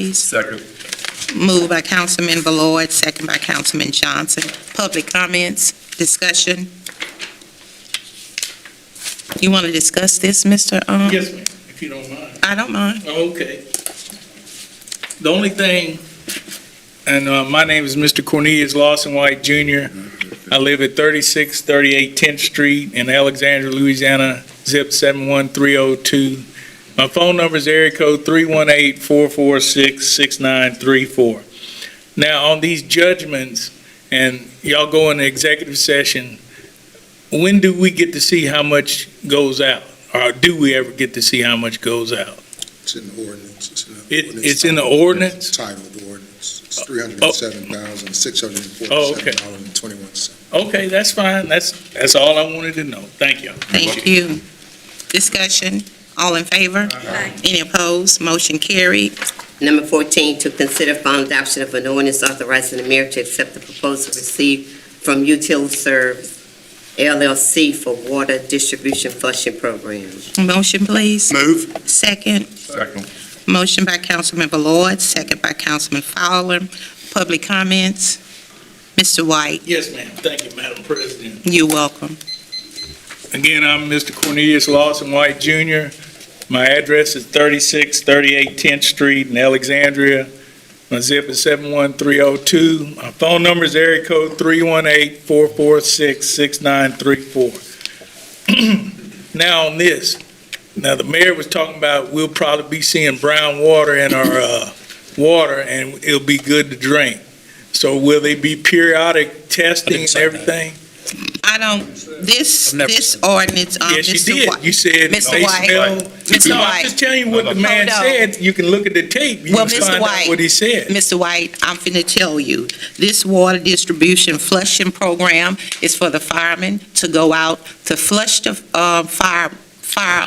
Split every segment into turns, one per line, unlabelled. please.
Second.
Moved by Councilman Ballard, second by Councilman Johnson. Public comments, discussion. You want to discuss this, Mr. Um?
Yes, ma'am, if you don't mind.
I don't mind.
Okay. The only thing, and uh, my name is Mr. Cornelius Lawson White Jr. I live at 3638 10th Street in Alexandria, Louisiana, zip 71302. My phone number is area code 318-446-6934. Now, on these judgments, and y'all go into executive session, when do we get to see how much goes out? Or do we ever get to see how much goes out?
It's in the ordinance. It's in the
It-
ordinance
it's in the
title.
ordinance?
Title of the ordinance. It's three hundred and seven thousand, six hundred and
Oh, okay.
forty-seven dollars and twenty-one cents.
Okay, that's fine. That's, that's all I wanted to know. Thank you.
Thank you. Discussion, all in favor? Any opposed? Motion carried.
Number 14, to consider final adoption of an ordinance authorizing the mayor to accept the proposal received from Util Service LLC for water distribution flushing program.
Motion, please.
Move.
Second.
Second.
Motion by Councilman Ballard, second by Councilman Fowler. Public comments? Mr. White,
Yes, ma'am. Thank you, Madam President.
you're welcome.
Again, I'm Mr. Cornelius Lawson White Jr. My address is 3638 10th Street in Alexandria. My zip is 71302. My phone number is area code 318-446-6934. Now on this, now the mayor was talking about we'll probably be seeing brown water in our uh, water and it'll be good to drink. So will they be periodic testing and
say that.
everything?
I don't, this,
I've never
this
seen
ordinance, um,
Yes, you
Mr.
did.
White.
You said they
Mr. White.
smell.
Mr.
No,
White.
I'm just telling you what the man
Hold on.
said. You can look at the tape. You
oh, Well,
can
Mr.
find
White.
out what he said.
Mr. White, I'm finna tell you, this water distribution flushing program is for the firemen to go out to flush the, uh, fire, fire,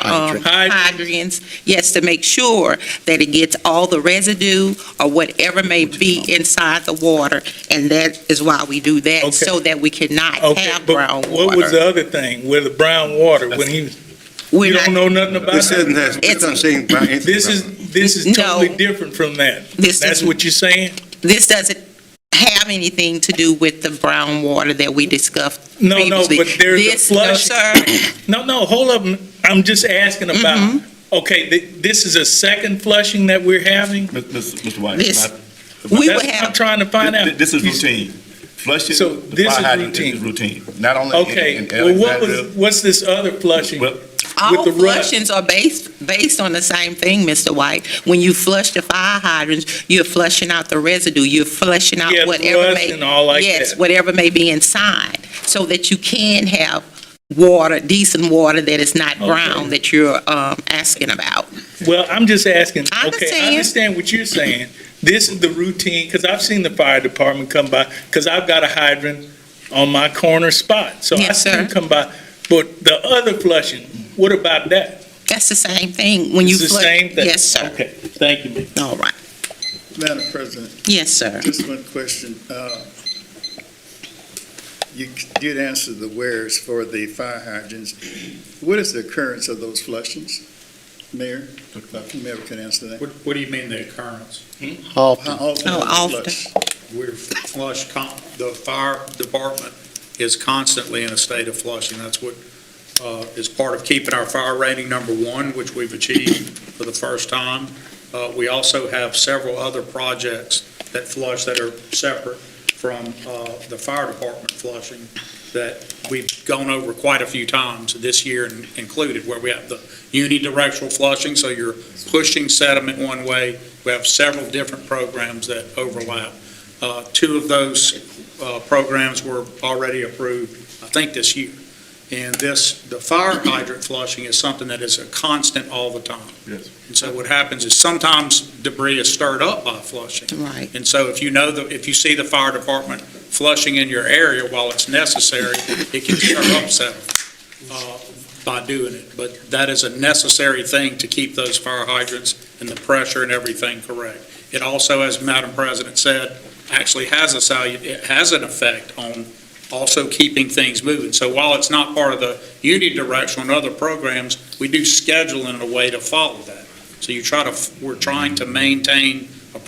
um,
Hydrant.
hydrants. Yes, to make sure that it gets all the residue or whatever may be inside the water. And that is why we do that,
Okay.
so that we cannot
Okay,
have brown
but what was
water.
the other thing with the brown water? When he, was-
We're
you
not-
don't know nothing about
This isn't,
that?
this
It's-
doesn't seem about anything.
This
about it.
is, this is
No.
totally different from that.
This
That's
isn't-
what you're saying?
This doesn't have anything to do with the brown water that we discussed
No, no,
previously.
but there's a
This- no,
flush.
sir.
No, no, hold up. I'm just asking about,
Mm-hmm.
okay, thi- this is a second flushing that we're having?
Mr. Mr. White,
This-
can
We
That's
would
what
have.
I'm trying to find
I-
out.
th- this is
You-
routine. Flushing
So
the
this
fire
is
hydrant is routine, not only in-
Okay,
in
well, what
Alexandria.
was, what's this other flushing?
Well,
All
with the rut.
flushings are based, based on the same thing, Mr. White. When you flush the fire hydrants, you're flushing out the residue, you're flushing out
Yeah,
whatever
rust
may.
and all like
Yes,
that.
whatever may be inside, so that you can have water, decent water that is not brown that you're, um, asking about.
Well, I'm just asking,
I
okay, I
understand.
understand what you're saying. This is the routine, because I've seen the fire department come by, because I've got a hydrant on my corner spot. So I
Yes,
see them
sir.
come by. But the other flushing, what about that?
That's the same thing when you
It's the
flush.
same thing.
Yes, sir.
Okay, thank you, ma'am.
All right.
Madam President,
Yes, sir.
just one question. Uh, You did answer the where's for the fire hydrants. What is the occurrence of those flushings? Mayor, whomever can answer that.
What, what do you mean the occurrence?
How often
Oh,
are they
often.
flushed?
We're flush, con- the fire department is constantly in a state of flushing. That's what, uh, is part of keeping our fire rating number one, which we've achieved for the first time. Uh, we also have several other projects that flush that are separate from, uh, the fire department flushing that we've gone over quite a few times this year in- included, where we have the unidirectional flushing, so you're pushing sediment one way. We have several different programs that overlap. Uh, Two of those uh, programs were already approved, I think, this year. And this, the fire hydrant flushing is something that is a constant all the time.
Yes.
And so what happens is sometimes debris is stirred up by flushing.
Right.
And so if you know, the if you see the fire department flushing in your area while it's necessary, it can stir up sediment uh, by doing it. But that is a necessary thing to keep those fire hydrants and the pressure and everything correct. It also, as Madam President said, actually has a salu, it has an effect on also keeping things moving. So while it's not part of the unidirectional and other programs, we do schedule in a way to follow that. So you try to, we're trying to maintain